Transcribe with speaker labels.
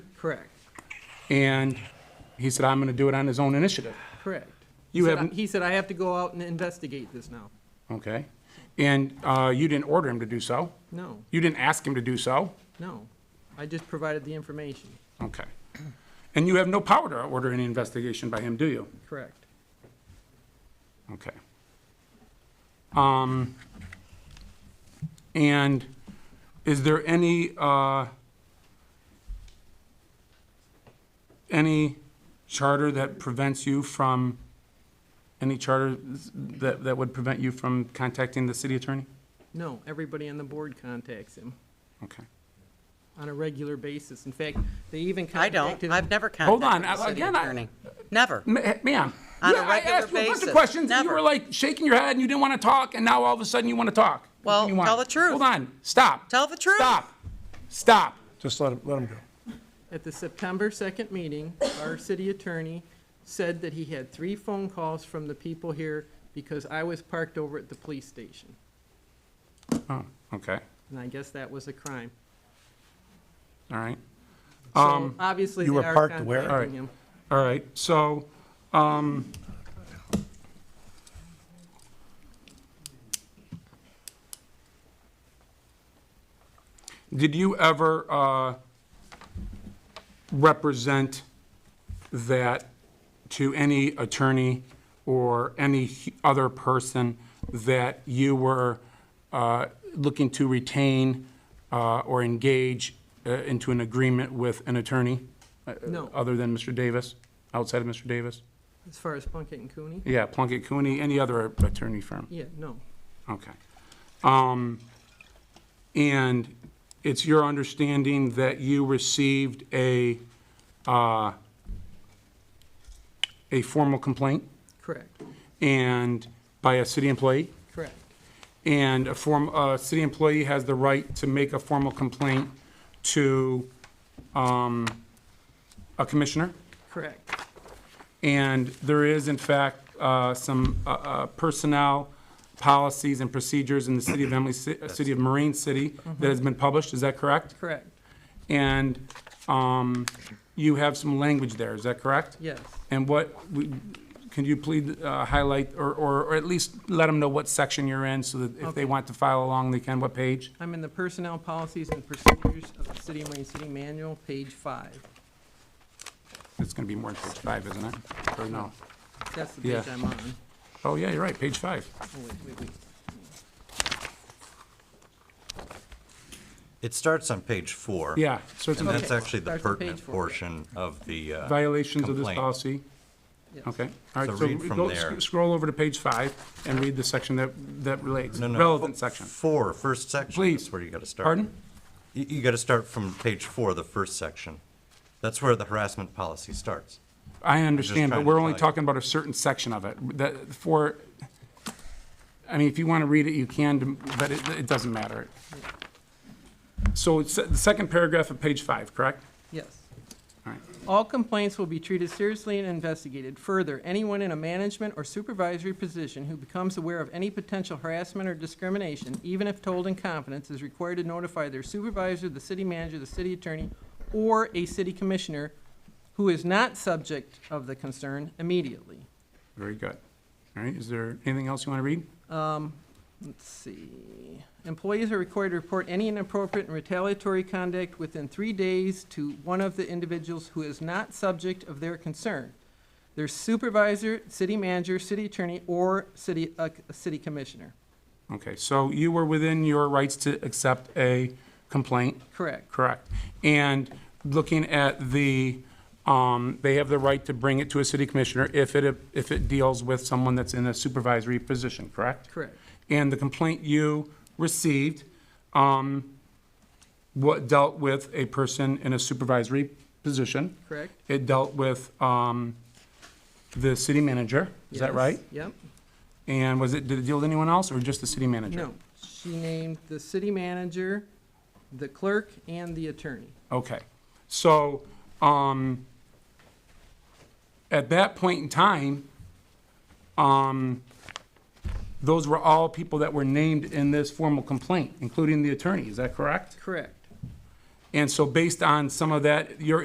Speaker 1: Correct,
Speaker 2: And he said, I'm gonna do it on his own initiative.
Speaker 1: correct. He
Speaker 2: You
Speaker 1: said I-
Speaker 2: haven't-
Speaker 1: He said, I have to go out and investigate this now.
Speaker 2: Okay? And uh, you didn't order him to do so.
Speaker 1: No,
Speaker 2: You didn't ask him to do so.
Speaker 1: no. I just provided the information,
Speaker 2: Okay. And you have no power to order any investigation by him, do you?
Speaker 1: correct.
Speaker 2: Okay. Um, and is there any, uh, any charter that prevents you from, any charter that, that would prevent you from contacting the city attorney?
Speaker 1: No, everybody on the board contacts him
Speaker 2: Okay.
Speaker 1: on a regular basis. In fact, they even
Speaker 3: I don't.
Speaker 1: contacted him.
Speaker 3: I've never
Speaker 2: Hold on,
Speaker 3: contacted the
Speaker 2: I-
Speaker 3: city
Speaker 2: again, I-
Speaker 3: attorney. Never.
Speaker 2: Ma- Ma'am.
Speaker 3: On a
Speaker 2: yeah,
Speaker 3: regular
Speaker 2: I asked you a bunch of
Speaker 3: basis.
Speaker 2: questions, and you
Speaker 3: Never.
Speaker 2: were like shaking your head, and you didn't want to talk, and now all of a sudden you want to talk.
Speaker 3: Well,
Speaker 2: You want-
Speaker 3: tell the truth.
Speaker 2: Hold on, stop.
Speaker 3: Tell the truth.
Speaker 2: Stop, stop.
Speaker 4: Just let him, let him go.
Speaker 1: At the September 2nd meeting, our city attorney said that he had three phone calls from the people here because I was parked over at the police station.
Speaker 2: Oh, okay,
Speaker 1: And I guess that was a crime.
Speaker 2: all right,
Speaker 1: So obviously,
Speaker 4: you
Speaker 1: they
Speaker 4: were
Speaker 1: are
Speaker 4: parked where?
Speaker 1: contacting him.
Speaker 2: all right, so, um, did you ever, uh, represent that to any attorney or any hu- other person that you were uh, looking to retain uh, or engage uh, into an agreement with an attorney? uh,
Speaker 1: No.
Speaker 2: Other than Mr. Davis, outside of Mr. Davis?
Speaker 1: As far as Plunkett and Cooney?
Speaker 2: Yeah, Plunkett Cooney, any other attorney firm?
Speaker 1: Yeah, no,
Speaker 2: Okay. Um, And it's your understanding that you received a, uh, a formal complaint
Speaker 1: correct,
Speaker 2: and, by a city employee?
Speaker 1: correct,
Speaker 2: And a form, a city employee has the right to make a formal complaint to um, a commissioner?
Speaker 1: correct,
Speaker 2: And there is, in fact, uh, some uh, uh, personnel policies and procedures in the city of Emily, Ci- uh, city of Marine City that has been published, is that correct?
Speaker 1: correct,
Speaker 2: And um, you have some language there, is that correct?
Speaker 1: yes.
Speaker 2: And what, we- can you please uh, highlight, or- or or at least let them know what section you're in, so that if they
Speaker 1: Okay.
Speaker 2: want to file along, they can, what page?
Speaker 1: I'm in the Personnel Policies and Procedures of the City of Marine City Manual, page five.
Speaker 2: It's going to be more than page five, isn't it? Or no?
Speaker 1: That's the
Speaker 2: Yeah.
Speaker 1: page I'm on.
Speaker 2: Oh, yeah, you're right, page five.
Speaker 1: Oh, wait, wait, wait.
Speaker 5: It starts on page four.
Speaker 2: Yeah, so it's
Speaker 5: And that's
Speaker 1: Okay.
Speaker 5: actually the
Speaker 1: Starts on page
Speaker 5: pertinent
Speaker 1: four.
Speaker 5: portion of the. uh,
Speaker 2: violations of this
Speaker 5: complaint.
Speaker 2: policy.
Speaker 1: Yes.
Speaker 2: Okay, all right,
Speaker 5: So
Speaker 2: so
Speaker 5: read from
Speaker 2: go,
Speaker 5: there.
Speaker 2: sc- scroll over to page five and read the section that, that relates,
Speaker 5: No, no,
Speaker 2: relevant
Speaker 5: f-
Speaker 2: section.
Speaker 5: Four, first section.
Speaker 2: Please.
Speaker 5: That's where you got to start.
Speaker 2: Pardon?
Speaker 5: You, you got to start from page four, the first section. That's where the harassment policy starts.
Speaker 2: I understand, but
Speaker 5: trying to
Speaker 2: we're only
Speaker 5: tell you.
Speaker 2: talking about a certain section of it, that, for, I mean, if you want to read it, you can, but it, it doesn't matter. So it's the second paragraph of page five, correct?
Speaker 1: Yes.
Speaker 2: All right.
Speaker 1: All complaints will be treated seriously and investigated. Further, anyone in a management or supervisory position who becomes aware of any potential harassment or discrimination, even if told in confidence, is required to notify their supervisor, the city manager, the city attorney, or a city commissioner who is not subject of the concern immediately.
Speaker 2: Very good. All right, is there anything else you want to read?
Speaker 1: Let's see. Employees are required to report any inappropriate and retaliatory conduct within three days to one of the individuals who is not subject of their concern. Their supervisor, city manager, city attorney, or city, uh, city commissioner.
Speaker 2: Okay, so you were within your rights to accept a complaint.
Speaker 1: Correct,
Speaker 2: Correct. And looking at the, um, they have the right to bring it to a city commissioner if it, if it deals with someone that's in a supervisory position, correct?
Speaker 1: correct.
Speaker 2: And the complaint you received, um, what dealt with a person in a supervisory position.
Speaker 1: Correct.
Speaker 2: It dealt with, um, the city manager, is that
Speaker 1: Yes.
Speaker 2: right?
Speaker 1: Yep.
Speaker 2: And was it, did it deal with anyone else or just the city manager?
Speaker 1: No, she named the city manager, the clerk, and the attorney.
Speaker 2: Okay, so, um, at that point in time, um, those were all people that were named in this formal complaint, including the attorney, is that correct?
Speaker 1: Correct.
Speaker 2: And so based on some of that, your